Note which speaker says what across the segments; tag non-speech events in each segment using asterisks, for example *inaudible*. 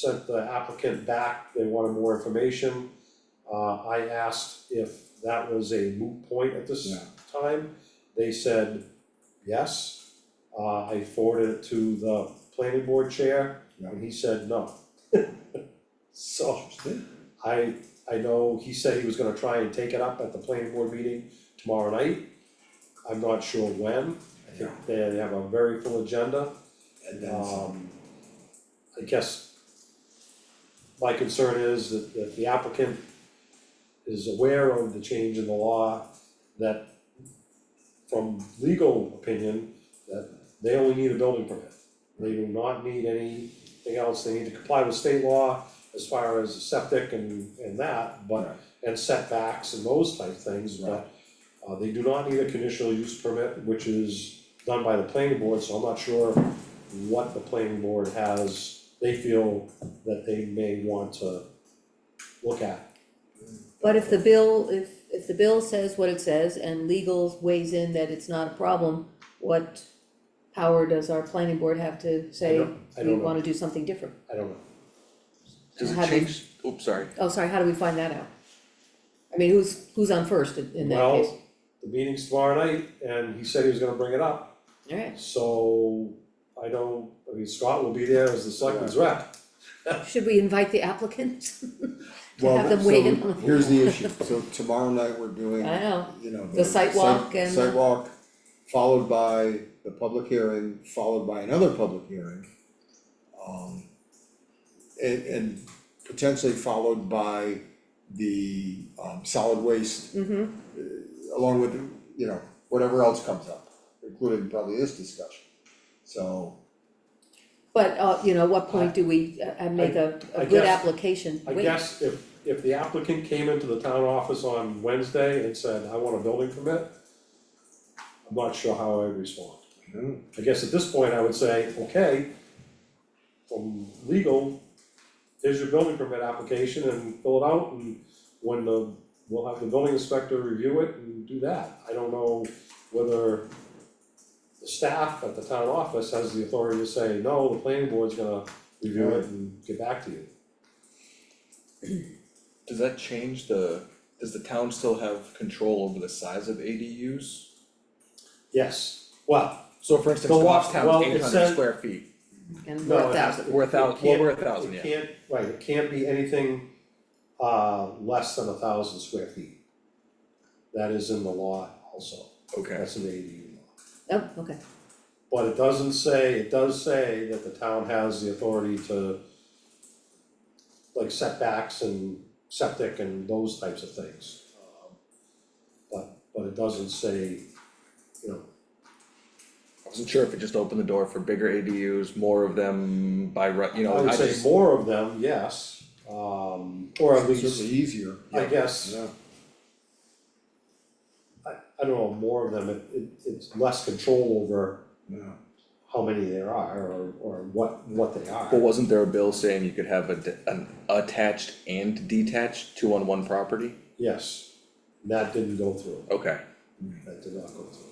Speaker 1: sent the applicant back, they wanted more information. Uh, I asked if that was a moot point at this
Speaker 2: Yeah.
Speaker 1: time, they said yes. Uh, I forwarded it to the planning board chair,
Speaker 2: Yeah.
Speaker 1: and he said no. *laughs* So,
Speaker 2: Interesting.
Speaker 1: I, I know he said he was gonna try and take it up at the planning board meeting tomorrow night. I'm not sure when, I think they they have a very full agenda,
Speaker 2: And then
Speaker 1: um, I guess. My concern is that that the applicant is aware of the change in the law that. From legal opinion, that they only need a building permit, they do not need anything else, they need to comply with state law. As far as septic and and that, but
Speaker 2: Right.
Speaker 1: and setbacks and those type things,
Speaker 2: Right.
Speaker 1: but. Uh, they do not need a conditional use permit, which is done by the planning board, so I'm not sure what the planning board has, they feel that they may want to look at.
Speaker 3: But if the bill, if, if the bill says what it says and legal weighs in that it's not a problem, what power does our planning board have to
Speaker 1: I
Speaker 3: say,
Speaker 1: don't- I
Speaker 3: we
Speaker 1: don't know,
Speaker 3: wanna do something different?
Speaker 1: I don't know,
Speaker 4: Does
Speaker 3: How
Speaker 4: it
Speaker 3: do they-
Speaker 4: change, oops, sorry,
Speaker 3: Oh, sorry, how do we find that out? I mean, who's, who's on first in, in that
Speaker 1: Well,
Speaker 3: case?
Speaker 1: the meeting's tomorrow night, and he said he was gonna bring it up,
Speaker 3: Alright,
Speaker 1: so I don't, I mean, Scott will be there as the selectman's rep.
Speaker 3: should we invite the applicant? *laughs*
Speaker 2: well,
Speaker 3: have them
Speaker 2: so
Speaker 3: weigh in on it.
Speaker 2: Here's the issue, so tomorrow night we're doing,
Speaker 3: I know.
Speaker 2: you know,
Speaker 3: The sidewalk
Speaker 2: site-
Speaker 3: and-
Speaker 2: sidewalk, followed by the public hearing, followed by another public hearing. Um, and, and potentially followed by the, um, solid waste, uh,
Speaker 3: Mm-hmm,
Speaker 2: along with, you know, whatever else comes up, including probably this discussion. So,
Speaker 3: but, uh, you know, what point do we, uh, uh, make a,
Speaker 1: I- I
Speaker 3: a good
Speaker 1: guess-
Speaker 3: application?
Speaker 1: I
Speaker 3: Wait,
Speaker 1: guess if, if the applicant came into the town office on Wednesday and said, I want a building permit, I'm not sure how I respond.
Speaker 2: hmm,
Speaker 1: I guess at this point, I would say, okay, from legal, here's your building permit application and fill it out and when the, we'll have the building inspector review it and do that. I don't know whether the staff at the town office has the authority to say, no, the planning board's gonna review it and get back to you.
Speaker 4: does that change the, does the town still have control over the size of ADUs?
Speaker 1: Yes, well,
Speaker 4: So for instance,
Speaker 1: The wa- well,
Speaker 4: Goffstown's
Speaker 1: it
Speaker 4: eight hundred
Speaker 1: says-
Speaker 4: square feet,
Speaker 3: And
Speaker 1: no,
Speaker 3: we're a
Speaker 1: it has to-
Speaker 3: thousand,
Speaker 4: we're a thou,
Speaker 1: It
Speaker 4: well,
Speaker 1: can't-
Speaker 4: we're a thousand,
Speaker 1: It
Speaker 4: yeah,
Speaker 1: can't, right, it can't be anything uh less than a thousand square feet. That is in the law also,
Speaker 4: okay,
Speaker 1: that's an ADU law.
Speaker 3: oh, okay,
Speaker 1: But it doesn't say, it does say that the town has the authority to like setbacks and septic and those types of things. Um, But but it doesn't say, you know,
Speaker 4: I wasn't sure if it just opened the door for bigger ADUs, more of them by right, you
Speaker 1: I
Speaker 4: know,
Speaker 1: would
Speaker 4: I
Speaker 1: say
Speaker 4: just,
Speaker 1: more of them, yes, um or at
Speaker 2: certainly
Speaker 1: least,
Speaker 2: easier,
Speaker 1: I guess,
Speaker 2: yeah.
Speaker 1: I I don't know, more of them, it it it's less control over
Speaker 2: Yeah,
Speaker 1: how many there are or or what what they are.
Speaker 4: but wasn't there a bill saying you could have a, de- an attached and detached two on one property?
Speaker 1: Yes, that didn't go through,
Speaker 4: Okay,
Speaker 1: that did not go through.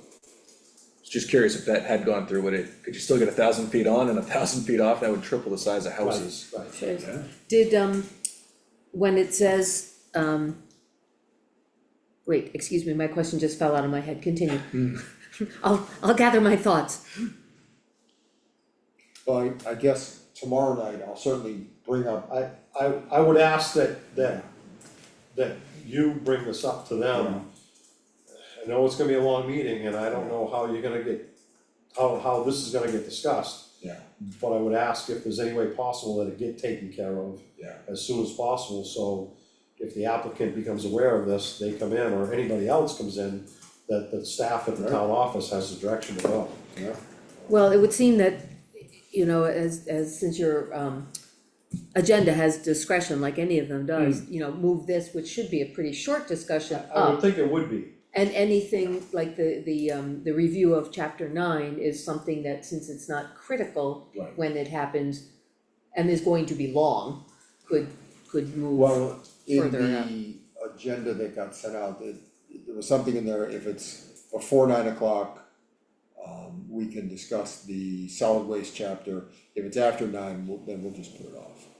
Speaker 4: was just curious if that had gone through, would it, could you still get a thousand feet on and a thousand feet off, that would triple the size of houses?
Speaker 1: Right, right.
Speaker 3: sure is.
Speaker 2: yeah,
Speaker 3: Did, um, when it says, um, wait, excuse me, my question just fell out of my head, continue.
Speaker 1: Hmm.
Speaker 3: I'll, I'll gather my thoughts.
Speaker 2: Well, I I guess tomorrow night I'll certainly bring up
Speaker 1: Um, I, I, I would ask that, that, that you bring this up to them. I know it's gonna be a long meeting, and I don't know how you're gonna get, how, how this is gonna get discussed.
Speaker 2: Yeah.
Speaker 1: But I would ask if there's any way possible that it get taken care of
Speaker 2: Yeah.
Speaker 1: as soon as possible, so if the applicant becomes aware of this, they come in, or anybody else comes in, that the staff at the town office has the direction to go.
Speaker 2: Yeah.
Speaker 3: Well, it would seem that, you know, as, as, since your, um, agenda has discretion, like any of them does, you know, move this, which should be a pretty short discussion
Speaker 1: Hmm. I would
Speaker 3: up.
Speaker 1: think it would be,
Speaker 3: And anything like the, the, um, the review of chapter nine is something that, since it's not critical
Speaker 2: Right.
Speaker 3: when it happens, and is going to be long, could, could move.
Speaker 2: Well, in
Speaker 3: Further out.
Speaker 2: the agenda that got sent out, it, there was something in there, if it's before nine o'clock, um, we can discuss the solid waste chapter, if it's after nine, we'll, then we'll just put it off.